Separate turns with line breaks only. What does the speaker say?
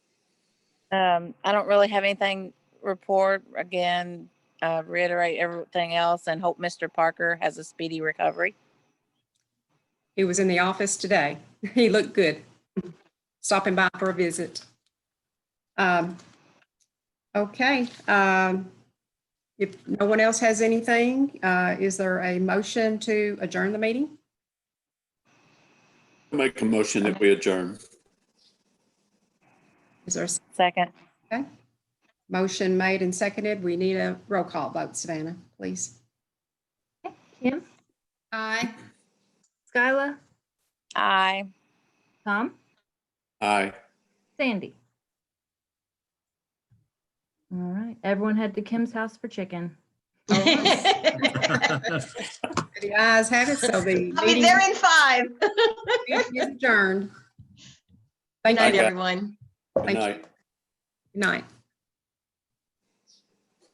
Um, I don't really have anything report. Again, uh, reiterate everything else and hope Mr. Parker has a speedy recovery.
He was in the office today. He looked good. Stopping by for a visit. Um, Okay, um, if no one else has anything, uh, is there a motion to adjourn the meeting?
Make a motion that we adjourn.
Is there a
Second,
motion made and seconded? We need a roll call vote, Savannah, please.
Kim,
Aye.
Skyla,
aye.
Tom,
Aye.
Sandy. All right, everyone head to Kim's house for chicken.
All The ayes have it, so the
I'll be
meeting
there in five.
meeting is adjourned. Thank
Night,
you.
guys.
everyone.
Good
Thank you.
night.
Good night.